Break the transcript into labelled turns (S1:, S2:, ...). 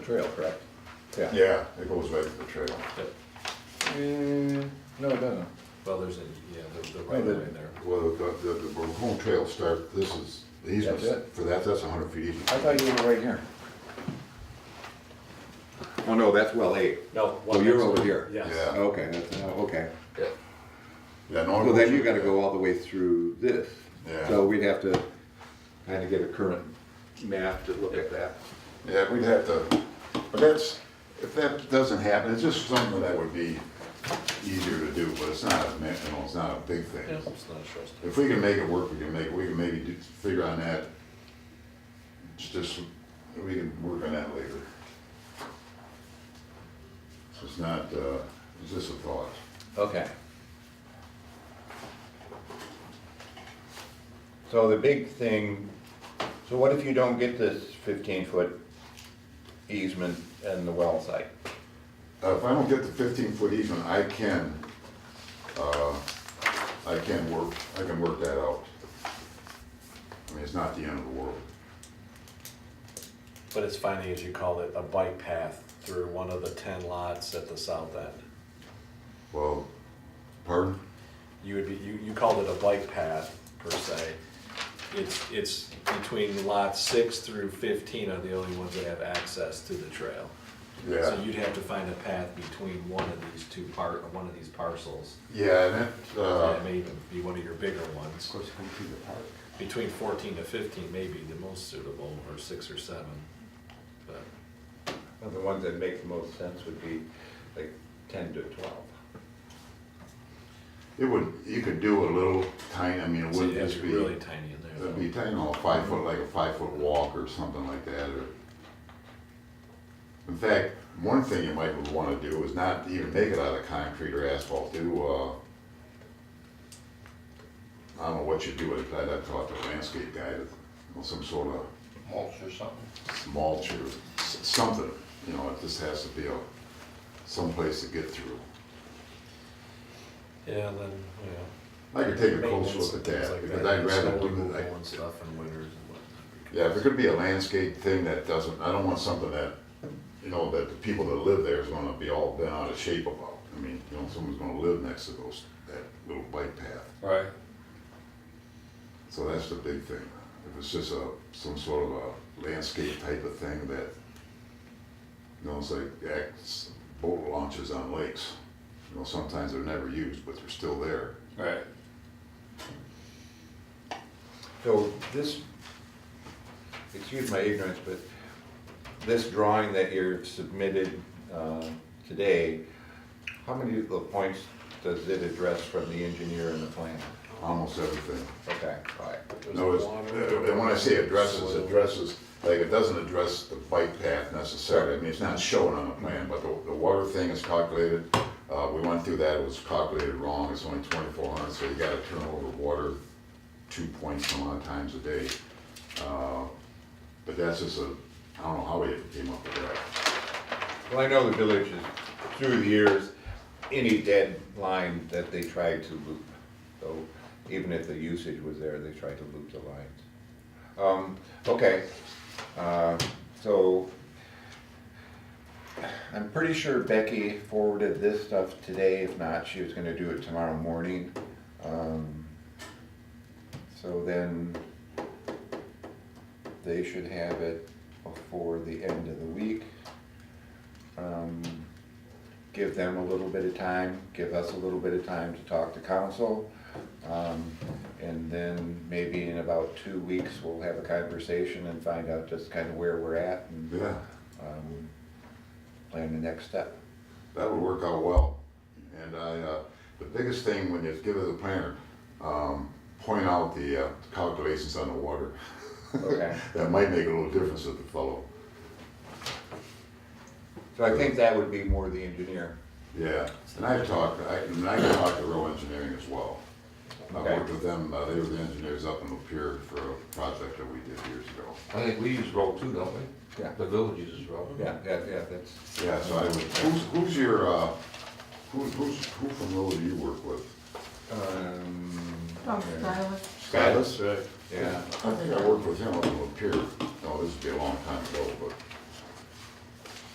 S1: trail, correct?
S2: Yeah, it goes right to the trail.
S3: Yep.
S1: Mm, No, it doesn't.
S3: Well, there's a, yeah, the,
S4: Oh,
S3: the right of way
S1: but-
S3: there.
S2: Well, the, the, the Macomb Trail start, this is, the
S1: That's
S2: easement,
S1: it?
S2: for that, that's hundred feet easement.
S1: I thought you were right here.
S4: Oh, no, that's well eight.
S5: No.
S4: Oh,
S5: one
S4: you're
S5: next-
S4: over here.
S5: Yes.
S2: Yeah,
S4: Okay, that's, oh, okay.
S2: yeah.
S1: Oh,
S2: no one
S4: Well, then
S2: goes
S4: you
S2: through
S4: gotta
S2: that.
S4: go all the way through this.
S2: Yeah.
S4: So we'd have to kinda get a current map to look at that.
S2: Yeah, we'd have to, but that's, if that doesn't happen, it's just something that would be easier to do, but it's not, a ma- you know, it's not a big thing.
S3: It's not a trust.
S2: If we can make it work, we can make, it. we can maybe do, figure on that. It's Just, we can work on that later. So it's not, uh, it's just a thought.
S1: Okay. So the big thing, so what if you don't get this fifteen foot easement and the well site?
S2: Uh, If I don't get the fifteen foot easement, I can, uh, I can work, I can work that out. I mean, it's not the end of the world.
S3: But it's finding, as you called it, a bike path through one of the ten lots at the south end.
S2: Well, pardon?
S3: You would be, you, you called it a bike path per se. It's, it's between lots six through fifteen are the only ones that have access to the trail. So
S2: Yeah,
S3: you'd have to find a path between one of these two part, one of these parcels.
S2: yeah, and that,
S4: Uh-huh.
S2: uh,
S3: That may even be one of your bigger ones.
S4: course, come through the park.
S3: Between fourteen to fifteen may be the most suitable, or six or seven. But
S1: Well, The ones that make the most sense would be like ten to twelve.
S2: it would, you could do a little tiny, I mean, it
S3: So
S2: wouldn't
S3: you have
S2: just
S3: to
S2: be.
S3: be really tiny in there.
S2: It'd
S3: though.
S2: be, you know, a five foot, like a five foot walk or something like that, or. In fact, one thing you might wanna do is not even make it out of concrete or asphalt, do, uh. I don't know what you do with it, I'd have to talk to a landscape guy, to- or some sort of
S6: mulch or something.
S2: mulch or s- something, you know, it just has to be a, someplace to get through.
S3: Yeah, and then, yeah.
S2: I could take a close look
S3: maintenance and
S2: at
S3: things
S2: that,
S3: like
S2: because I'd rather
S3: snow
S2: do,
S3: removal
S2: I,
S3: And stuff in winters and whatnot.
S2: Yeah, if it could be a landscape thing that doesn't, I don't want something that, you know, that the people that live there is gonna be all bent out of shape about. I mean, you know, someone's gonna live next to those, that little bike path.
S6: Right.
S2: So that's the big thing. If it's just a, some sort of a landscape type of thing that, you know, it's like acts, boat launches on lakes. You know, sometimes they're never used, but they're still there.
S6: Right.
S1: So this, excuse my ignorance, but this drawing that you're submitted uh, today, how many of the points does it address from the engineer and the plan?
S2: Almost everything.
S1: Okay, all right.
S2: No, it's, uh, and when I say addresses,
S3: Soil.
S2: addresses, like, it doesn't address the bike path necessarily, I mean, it's not shown on the plan, but the, the water thing is calculated. Uh, we went through that, it was calculated wrong, it's only twenty-four hundred, so you gotta turn over water two point some odd times a day. Uh, But that's just a, I don't know how we came up with that.
S1: Well, I know the village is, through the years, any dead line that they tried to loop. So even if the usage was there, they tried to loop the lines. Um, okay, uh, so I'm pretty sure Becky forwarded this stuff today. If not, she was gonna do it tomorrow morning. Um, So then they should have it before the end of the week um, give them a little bit of time, give us a little bit of time to talk to council. Um, and then maybe in about two weeks, we'll have a conversation and find out just kind of where we're at and,
S2: Yeah,
S1: um, plan the next step.
S2: that would work out well. And I, uh, the biggest thing when you give it to the planner, um, point out the uh, calculations on the water.
S1: Okay.
S2: That might make a little difference with the fellow.
S1: So I think that would be more the engineer.
S2: Yeah, and I've talked, I, and I've talked to Row Engineering as well. I
S1: Okay.
S2: worked with them, uh, they were the engineers up in Lapeer for a project that we did years ago.
S6: I think we use road too, don't we?
S1: Yeah.
S6: The village uses road.
S1: Yeah, yeah, yeah, that's,
S2: Yeah, so I would, who's, who's your, uh, who, who's, who from Row do you work with?
S1: um.
S7: From
S1: yeah.
S7: Skylar.
S2: Scottus?
S1: Yeah,
S2: I think I worked with him up in Lapeer, no, this would be a long time ago, but